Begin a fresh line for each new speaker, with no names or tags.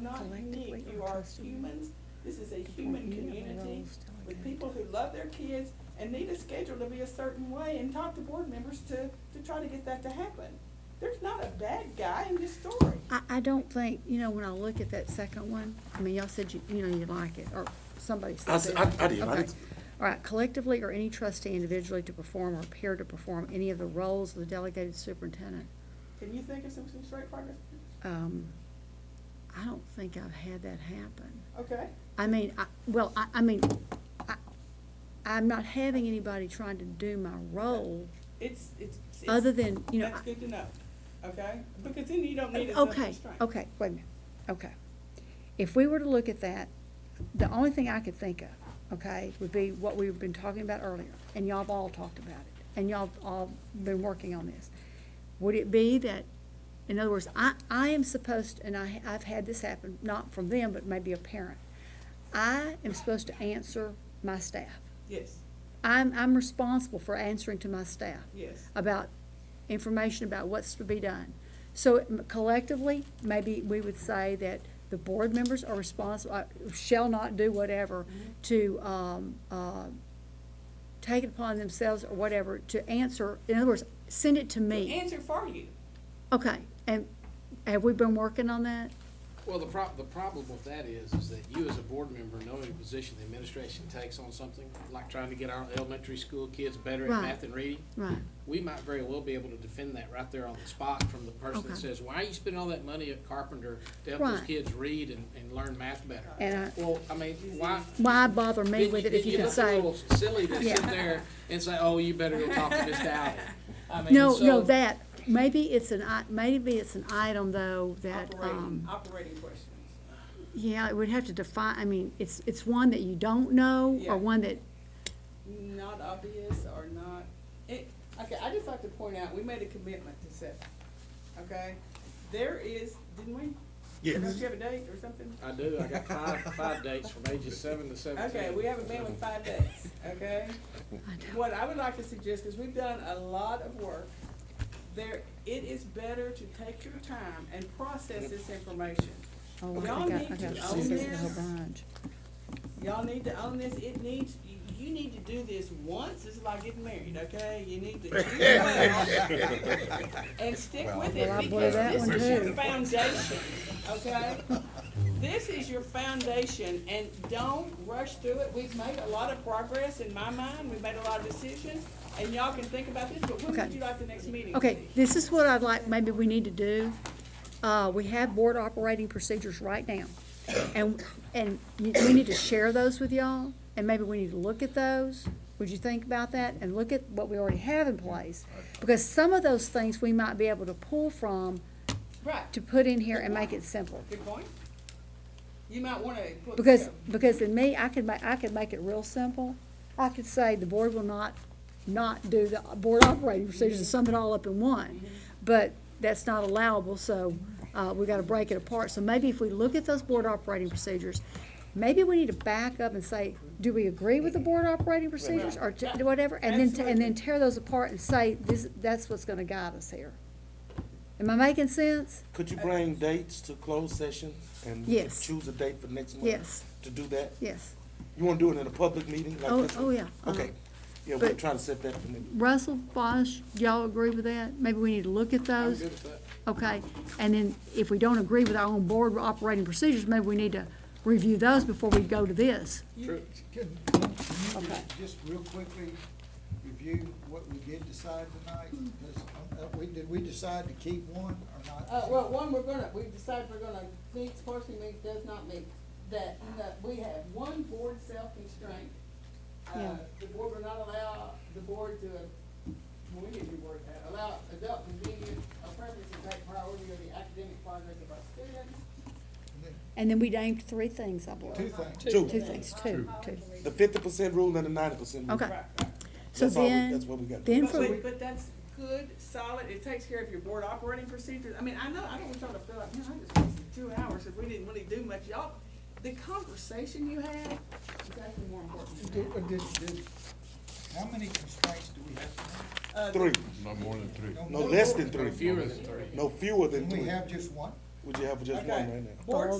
not
Collectively
unique, you
or
are
trustee.
humans, this is a
The
human
board
community
rules
with
delegate.
people who love their kids and need a schedule to be a certain way and talk to board members to, to try to get that to happen. There's not a bad guy in this story.
I, I don't think, you know, when I look at that second one, I mean, y'all said you, you know, you like it, or somebody
I
said
s-
that.
I- I did. I
Okay.
did.
All right, collectively or any trustee individually to perform or appear to perform any of the roles of the delegated superintendent.
Can you think of some, some straight progress?
Um, I don't think I've had that happen.
Okay,
I mean, I, well, I, I mean, I, I'm not having anybody trying to do my role,
it's, it's. it's-
other than, you know.
That's
I-
good to know, okay? Because then you don't need as much
Okay,
constraint.
okay, wait a minute, okay. If we were to look at that, the only thing I could think of, okay, would be what we've been talking about earlier, and y'all have all talked about it, and y'all have all been working on this. Would it be that, in other words, I, I am supposed, and I, I've had this happen, not from them, but maybe a parent. I am supposed to answer my staff.
Yes,
I'm, I'm responsible for answering to my staff
yes.
about information about what's to be done. So collectively, maybe we would say that the board members are responsible, uh, shall not do whatever to, um, uh, take it upon themselves or whatever to answer, in other words, send it to me.
Answer for you.
Okay, and have we been working on that?
Well, the prob, the problem with that is, is that you as a board member, knowing the position the administration takes on something, like trying to get our elementary school kids better at
Right.
math and reading,
Right,
we might very well be able to defend that right there on the spot from the person
Okay.
that says, why are you spending all that money at Carpenter to help those
Right.
kids read and, and learn math better?
and I,
Well, I mean, why?
why bother me
then
with it if
then
you can
look a
say?
little Silly to sit
Yeah.
there and say, oh, you better go talk to Miss Dowdy. I mean,
No, no,
so-
that, maybe it's an, i- maybe it's an item though that, um.
Operating, operating questions.
Yeah, it would have to define, I mean, it's, it's one that you don't know,
Yeah.
or one that,
not obvious or not, it, okay, I just like to point out, we made a commitment to set, okay? There is, didn't we?
Yes.
Don't you have a date or something?
I do, I got five, five dates from ages seven to seventeen.
Okay, we haven't been with five days, okay?
I don't-
What I would like to suggest is we've done a lot of work. There, it is better to take your time and process this information.
oh,
Y'all
I got, I
need
got
to
to
own
see this a whole
this.
bunch.
Y'all need to own this, it needs, you, you need to do this once, it's like getting married, okay? You need to do well and stick with
Well, I
it
blew
because
that
this
one
is your
too.
foundation, okay? This is your foundation and don't rush through it. We've made a lot of progress in my mind, we've made a lot of decisions and y'all can think about this, but when would
Okay.
you like the next meeting? to
Okay,
be?
this is what I'd like, maybe we need to do. Uh, we have board operating procedures right now. And, and you- we need to share those with y'all, and maybe we need to look at those. Would you think about that and look at what we already have in place? Because some of those things we might be able to pull from
Right,
to put in here and make it simple.
good point. You might wanna put.
Because, because in me, I could ma- I could make it real simple. I could say the board will not, not do the board operating procedures and sum it all up in one. But that's not allowable, so, uh, we gotta break it apart. So maybe if we look at those board operating procedures, maybe we need to back up and say, do we agree with the board operating procedures or t- whatever? And then, t- and then tear those apart and say, this, that's what's gonna guide us here. Am I making sense?
Could you bring dates to closed session and
Yes.
choose a date for next month?
Yes.
To do that?
Yes.
You wanna do it in a public meeting like
Oh,
this?
oh,
one?
yeah, uh-huh.
Okay, yeah, we're
But-
trying to set that for next.
Russell, Bosch, y'all agree with that? Maybe we need to look at
I'm
those?
good with that.
Okay, and then if we don't agree with our own board operating procedures, maybe we need to review those before we go to this.
True.
Can, can you
Okay.
just real quickly review what we did decide tonight? Does- uh, we- Did we decide to keep one or not?
Uh, well, one, we're gonna, we've decided we're gonna meet, partially meet, does not meet, that, that we have one board self-constraint. Uh,
Yeah.
the board will not allow, the board to, well, we need to work that, allow adult convenience, a preference to take priority of the academic progress of our students.
And then we named three things, I
Two
believe.
things.
Two,
Two things, two, two.
the fifty percent rule and the ninety percent rule.
Okay,
Right.
so
That's all we-
then,
That's what we got.
then
But,
for,
wait, but that's good, solid, it takes care of your board operating procedures, I mean, I know, I don't want y'all to feel like, man, I just wasted two hours if we didn't really do much, y'all, the conversation you had is actually more important than that.
Did, uh, did, did, how many constraints do we have?
Uh,
Three,
Not more than three.
tonight?
no less than
Or
three,
fewer than three.
no fewer than
Can we
three.
have just one?
Would you have just one
Okay.
right now?
Board
Board